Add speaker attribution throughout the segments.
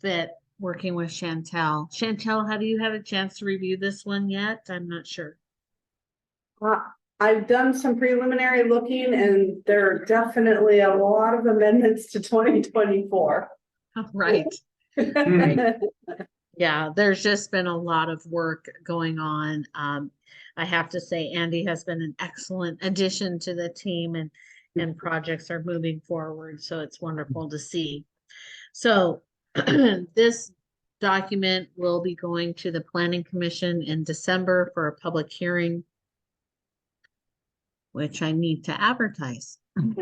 Speaker 1: fit working with Chantel. Chantel, have you had a chance to review this one yet? I'm not sure.
Speaker 2: Uh, I've done some preliminary looking and there are definitely a lot of amendments to twenty twenty-four.
Speaker 1: Right,
Speaker 3: Hmm.
Speaker 2: Right.
Speaker 1: yeah, there's just been a lot of work going on. Um, I have to say Andy has been an excellent addition to the team and, and projects are moving forward, so it's wonderful to see. So this document will be going to the planning commission in December for a public hearing, which I need to advertise. any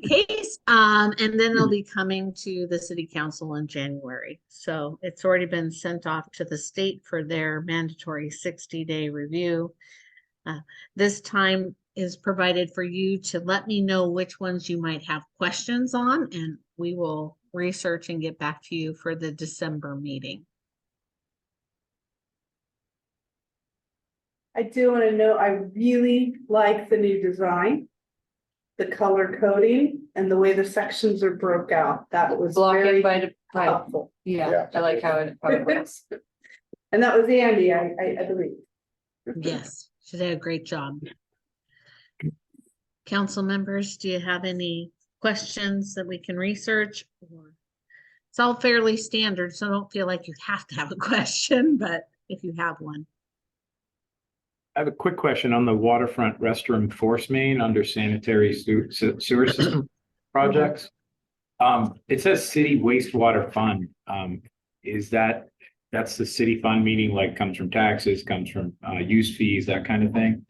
Speaker 1: case, um, and then it'll be coming to the city council in January. So it's already been sent off to the state for their mandatory sixty day review. Uh, This time is provided for you to let me know which ones you might have questions on and we will research and get back to you for the December meeting.
Speaker 2: I do want to know, I really like the new design. The color coding and the way the sections are broke out. That was
Speaker 3: Blocking
Speaker 2: very
Speaker 3: by, the- by,
Speaker 2: helpful.
Speaker 3: yeah,
Speaker 4: Yeah.
Speaker 3: I like how it, how it works.
Speaker 2: And that was Andy, I, I, I believe.
Speaker 1: Yes, she did a great job. Council members, do you have any questions that we can research? or- It's all fairly standard, so don't feel like you have to have a question, but if you have one.
Speaker 5: I have a quick question on the waterfront restroom force main under sanitary sewer, sewer system projects. Um, it says city wastewater fund. Um, is that, that's the city fund, meaning like comes from taxes, comes from, uh, use fees, that kind of thing?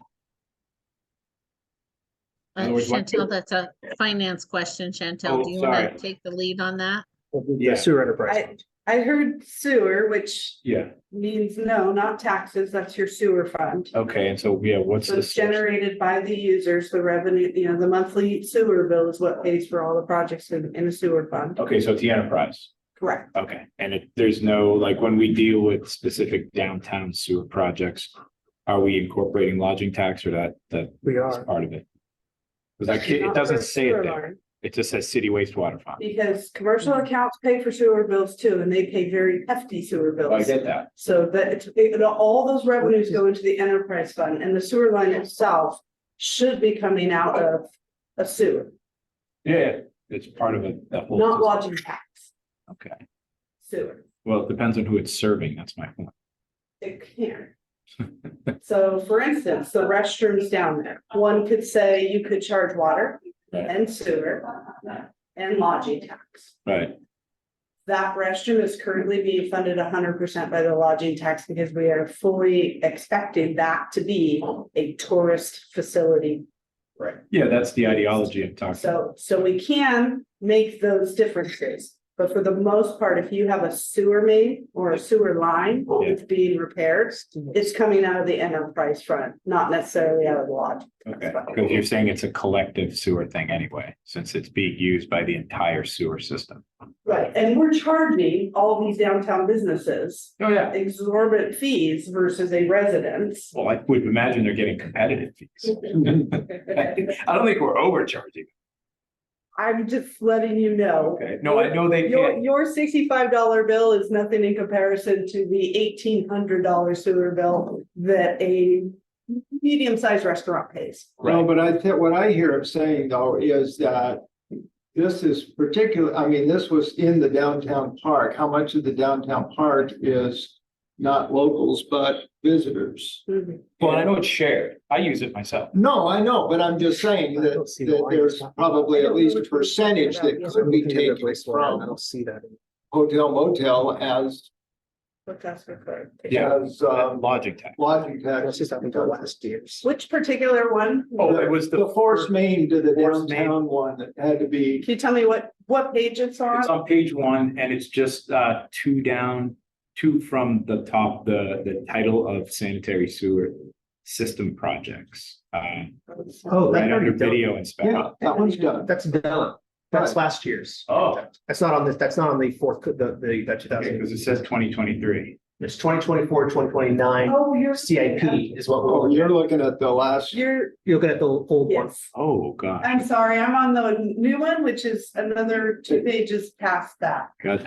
Speaker 1: Uh,
Speaker 5: Otherwise, what-
Speaker 1: Chantel, that's a finance question. Chantel,
Speaker 5: Oh,
Speaker 1: do you want to
Speaker 5: sorry.
Speaker 1: take the lead on that?
Speaker 5: Yeah.
Speaker 4: The sewer enterprise.
Speaker 2: I, I heard sewer, which
Speaker 5: Yeah,
Speaker 2: means no, not taxes, that's your sewer fund.
Speaker 5: okay, and so, yeah, what's
Speaker 2: So
Speaker 5: the?
Speaker 2: it's
Speaker 5: source?
Speaker 2: generated by the users, the revenue, you know, the monthly sewer bill is what pays for all the projects in, in the sewer fund.
Speaker 5: Okay, so it's the enterprise.
Speaker 2: Correct.
Speaker 5: Okay, and it, there's no, like, when we deal with specific downtown sewer projects, are we incorporating lodging tax or that, that
Speaker 4: We
Speaker 5: is
Speaker 4: are.
Speaker 5: part of it? Because I, ca- it doesn't say it there, it just says city wastewater fund.
Speaker 2: Because commercial accounts pay for sewer bills too, and they pay very hefty sewer
Speaker 5: I
Speaker 2: bills.
Speaker 5: get that,
Speaker 2: So that, it's- it- all those revenues go into the enterprise fund and the sewer line itself should be coming out of, of sewer,
Speaker 5: yeah, it's part of it, that whole.
Speaker 2: not lodging tax,
Speaker 5: Okay,
Speaker 2: sewer.
Speaker 5: well, it depends on who it's serving, that's my point.
Speaker 2: It can. So for instance, the restrooms down there, one could say you could charge water
Speaker 5: Right.
Speaker 2: and sewer and lodging tax.
Speaker 5: Right,
Speaker 2: That restroom is currently being funded hundred percent by the lodging tax because we are fully expecting that to be a tourist facility.
Speaker 5: yeah, that's the ideology I'm talking, about.
Speaker 2: So, so we can make those differences. But for the most part, if you have a sewer main or a sewer line that's being repaired, it's coming out of the enterprise front, not necessarily out of the lodge.
Speaker 5: okay, because you're saying it's a collective sewer thing anyway, since it's being used by the entire sewer system.
Speaker 2: Right, and we're charging all these downtown businesses
Speaker 5: Oh, yeah.
Speaker 2: exorbitant fees versus a residence.
Speaker 5: Well, I would imagine they're getting competitive fees. I don't think we're overcharging.
Speaker 2: I'm just letting you know.
Speaker 5: Okay, no, I know they
Speaker 2: Your,
Speaker 5: can't.
Speaker 2: your sixty-five dollar bill is nothing in comparison to the eighteen hundred dollar sewer bill that a medium-sized restaurant pays.
Speaker 5: Right.
Speaker 6: No, but I think what I hear him saying though is that this is particular, I mean, this was in the downtown park. How much of the downtown park is not locals, but visitors?
Speaker 5: Well, I know it's shared. I use it myself.
Speaker 6: No, I know, but I'm just saying that, that there's probably at least a percentage that could be taken from
Speaker 4: see that.
Speaker 6: hotel motel as,
Speaker 2: But that's for clarification.
Speaker 5: Yeah.
Speaker 6: as, um,
Speaker 5: Lodging tax.
Speaker 6: lodging
Speaker 4: That's
Speaker 6: tax.
Speaker 4: just happened to last year's.
Speaker 2: Which particular one?
Speaker 5: Oh, it was
Speaker 6: The force main to the
Speaker 5: Force main.
Speaker 6: downtown one that had to be,
Speaker 2: Can you tell me what, what page it's on?
Speaker 5: It's on page one and it's just uh two down, two from the top, the the title of sanitary sewer system projects. Uh,
Speaker 4: Oh,
Speaker 5: right under
Speaker 4: that's
Speaker 5: video
Speaker 6: yeah,
Speaker 5: inspection.
Speaker 6: Uh, that one's done.
Speaker 4: That's done. That's last year's.
Speaker 5: Oh.
Speaker 4: That's not on this, that's not on the fourth, the, the, that two
Speaker 5: Okay,
Speaker 4: thousand.
Speaker 5: because it says twenty twenty-three.
Speaker 4: It's 2024, 2029
Speaker 2: Oh, you're.
Speaker 4: CIP is what
Speaker 6: Oh,
Speaker 4: we're,
Speaker 6: you're looking at the last,
Speaker 2: You're,
Speaker 4: you're looking at the old one.
Speaker 2: yes.
Speaker 5: Oh, God.
Speaker 2: I'm sorry, I'm on the new one, which is another two pages past that.
Speaker 5: God.